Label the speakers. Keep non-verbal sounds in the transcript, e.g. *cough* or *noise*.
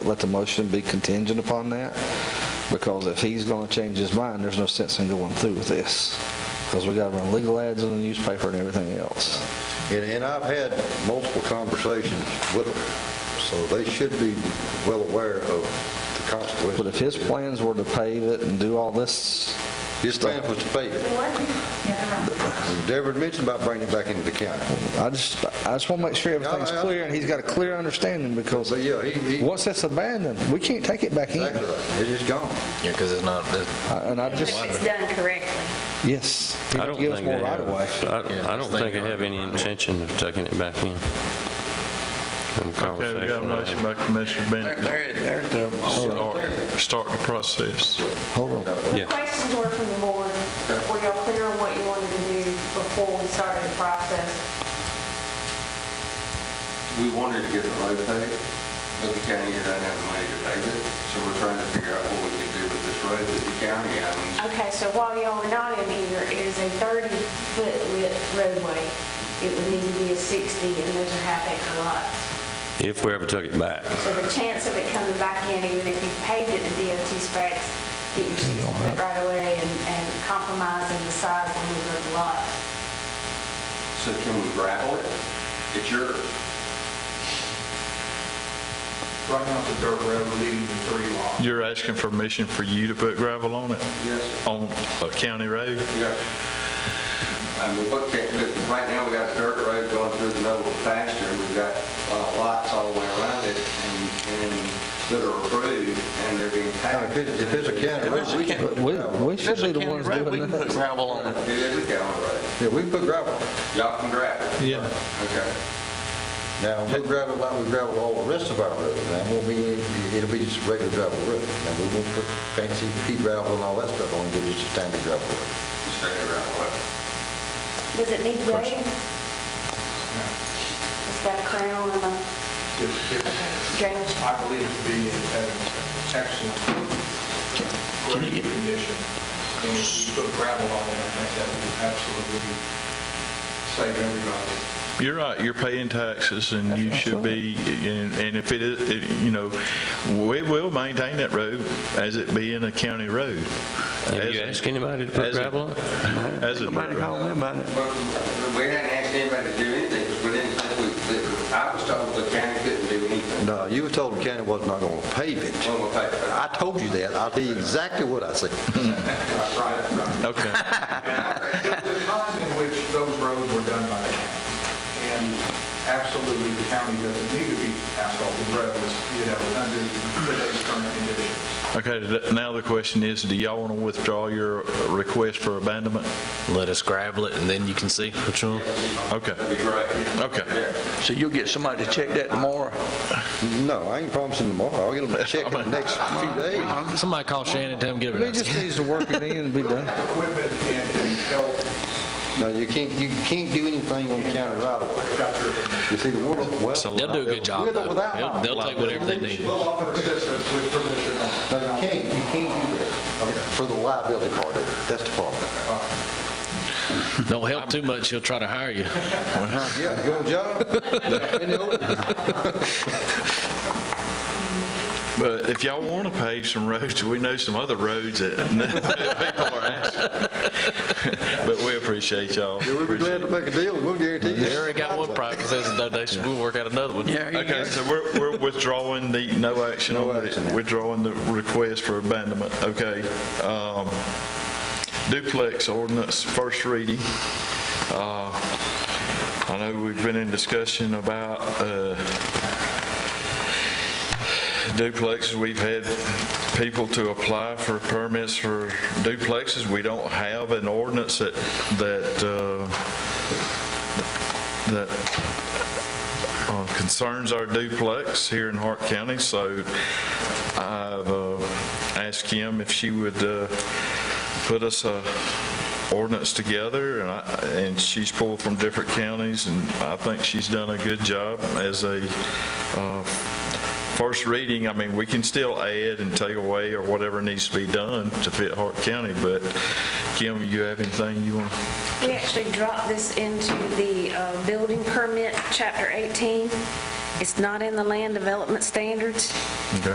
Speaker 1: let the motion be contingent upon that, because if he's gonna change his mind, there's no sense in going through with this, because we gotta run legal ads in the newspaper and everything else.
Speaker 2: And, and I've had multiple conversations with them, so they should be well aware of the consequences.
Speaker 1: But if his plans were to pave it and do all this,
Speaker 2: His plan was to pay it. Deborah mentioned about bringing it back into the county.
Speaker 1: I just, I just wanna make sure everything's
Speaker 2: Yeah, I- I-
Speaker 1: clear, and he's got a clear understanding, because
Speaker 2: But yeah, he, he,
Speaker 1: once it's abandoned, we can't take it back in.
Speaker 2: exactly right. It is gone.
Speaker 3: Yeah, because it's not, it-
Speaker 1: I- And I just,
Speaker 4: If it's done correctly.
Speaker 1: yes, he
Speaker 5: I
Speaker 1: don't
Speaker 5: don't
Speaker 1: give us
Speaker 5: think
Speaker 1: more
Speaker 5: they
Speaker 1: right
Speaker 5: have,
Speaker 1: of way.
Speaker 5: I I don't think they have any intention of taking it back in. From
Speaker 6: Okay, we
Speaker 5: conversation I had.
Speaker 6: got a motion by Commissioner Bennett. Start- Start the process.
Speaker 1: Hold on.
Speaker 5: Yeah.
Speaker 7: The questions were from the board, were y'all clear on what you wanted to do before we started the process?
Speaker 8: we wanted to get the road paved, but the county doesn't have the money to pave it, so we're trying to figure out what we can do with this road that the county owns.
Speaker 7: Okay, so while y'all are not in here, it is a 30-foot width roadway. It would need to be a 60, and those are half acre lots.
Speaker 5: If we ever took it back.
Speaker 7: So the chance of it coming back in, even if you paved it to DOT specs, get your 60-foot right of way and and compromising the size of the lot.
Speaker 8: So can we gravel it? It's yours. Right now, it's a dirt road leading to three lots.
Speaker 6: You're asking for permission for you to put gravel on it,
Speaker 8: Yes, sir.
Speaker 6: on a county road?
Speaker 8: Yeah. I mean, what can, but right now, we got a dirt road going through the middle of the pasture, and we've got uh, lots all the way around it, and, and that are approved, and they're being
Speaker 2: If
Speaker 8: taxed.
Speaker 2: it- if it's a county road, we can,
Speaker 1: We, we should be the ones doing that.
Speaker 3: gravel on it.
Speaker 8: It is a county road.
Speaker 2: yeah, we can put gravel.
Speaker 8: Y'all can gravel.
Speaker 6: Yeah.
Speaker 8: Okay.
Speaker 2: Now, we'll gravel like we gravel all the rest of our roads. Now, won't be, it'll be just regular gravel road. Now, we won't put fancy pea gravel and all that stuff on it, it's just a standard gravel road.
Speaker 8: Straight gravel road.
Speaker 7: Does it need grading? It's got a crown and a drainage.
Speaker 8: I believe to be an excellent grading condition. And if you put gravel on it, I think that would absolutely save everybody.
Speaker 6: You're right, you're paying taxes and you should be, and and if it is, it- you know, we will maintain that road as it being a county road.
Speaker 5: Have you
Speaker 6: As-
Speaker 5: asked anybody to put
Speaker 6: as a-
Speaker 5: gravel on it?
Speaker 6: As a dirt road.
Speaker 8: But we hadn't asked anybody to do anything, because we didn't think we, that- I was told the county couldn't do anything
Speaker 2: No, you were told the county was not going to pave it.
Speaker 8: on the paper.
Speaker 2: I told you that. I'll tell you exactly what I said.
Speaker 8: Right, right, right.
Speaker 6: Okay.
Speaker 9: The times in which those roads were done by the county, and absolutely the county doesn't need to be asphalted roads, you know, under today's current conditions.
Speaker 6: Okay, th- now the question is, do y'all want to withdraw your request for abandonment?
Speaker 3: Let us gravel it, and then you can see which one.
Speaker 6: Okay. Okay.
Speaker 10: So you'll get somebody to check that tomorrow?
Speaker 2: No, I ain't promising tomorrow. I'll get them to check in the next few days.
Speaker 3: Somebody call Shannon, tell him give
Speaker 1: He
Speaker 3: it
Speaker 1: just needs to work it in and be done.
Speaker 9: Equipment and and health,
Speaker 2: No, you can't, you can't do anything on county right away. You see, the world, well.
Speaker 3: us. They'll do a good job,
Speaker 2: With or
Speaker 3: though.
Speaker 2: without
Speaker 3: They'll-
Speaker 2: lights.
Speaker 3: They'll take whatever they need.
Speaker 9: will offer assistance with permission on.
Speaker 2: No, you can't, you can't do that for the liability part of it. That's the problem.
Speaker 3: Don't help too much, he'll try to hire you.
Speaker 2: Yeah, you want a job? In the open.
Speaker 6: But if y'all want to pave some roads, we know some other roads that *laughs* people are asking. But we appreciate y'all.
Speaker 2: Yeah, we'll be glad to make a deal, we'll guarantee you.
Speaker 3: They already got one private citizen donation, we'll work out another one.
Speaker 10: Yeah. you
Speaker 6: Okay,
Speaker 10: guys-
Speaker 6: so we're we're withdrawing the, no action on the, withdrawing the request for abandonment, okay? Um, Duplex ordinance, first reading. Uh, I know we've been in discussion about uh, duplexes. We've had people to apply for permits for duplexes. We don't have an ordinance that, that, uh, that uh, concerns our duplex here in Hart County, so I've uh, asked Kim if she would uh, put us a ordinance together, and I- and she's pulled from different counties, and I think she's done a good job as a uh, first reading. I mean, we can still add and take away or whatever needs to be done to fit Hart County, but Kim, you have anything you want?
Speaker 7: We actually dropped this into the uh, building permit, chapter 18. It's not in the land development standards.